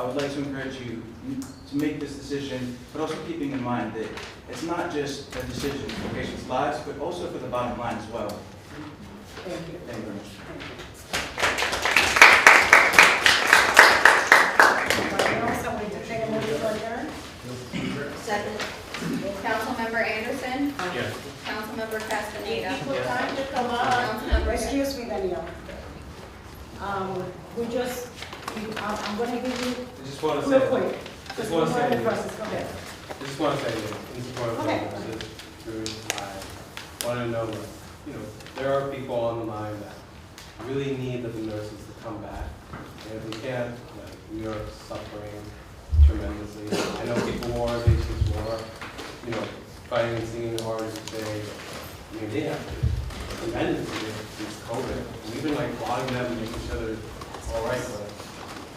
I would like to encourage you to make this decision, but also keeping in mind that it's not just a decision for patients' lives, but also for the bottom line as well. Thank you. Thank you very much. Anyone else? Somebody to take a motion to adjourn? Second. Councilmember Anderson. Yes. Councilmember Castaneda. Equal time to come up. Excuse me, Danielle. Um, we just, we- I'm, I'm gonna give you, I just want to say, real quick. Because Just one we're in second. the process, go ahead. I just want to say this, in support of the Okay. officers, I want to know, that, you know, there are people on the line that really need the nurses to come back. And if we can't, like, we are suffering tremendously. I know people war, patients war, you know, fighting and singing hard as they, I mean, they have tremendously with COVID. We've been like blocking them and making sure they're all right, but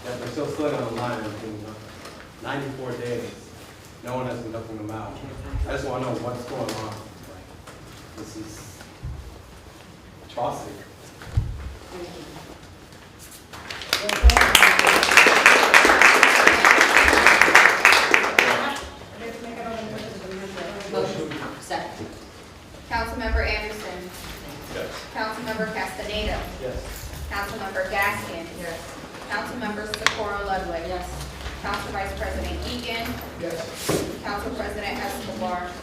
yet they're still stuck on the line, and doing nothing. 94 days, no one has been helping them out. I just want to know what's going on. Like, This is atrocity. Let's make another motion to adjourn. Motion. Second. Councilmember Anderson. Yes. Councilmember Castaneda. Yes. Councilmember Gaskin. Yes. Councilmember Socorro Ludwig. Yes. Council Vice President Egan. Yes. Council President Escobar.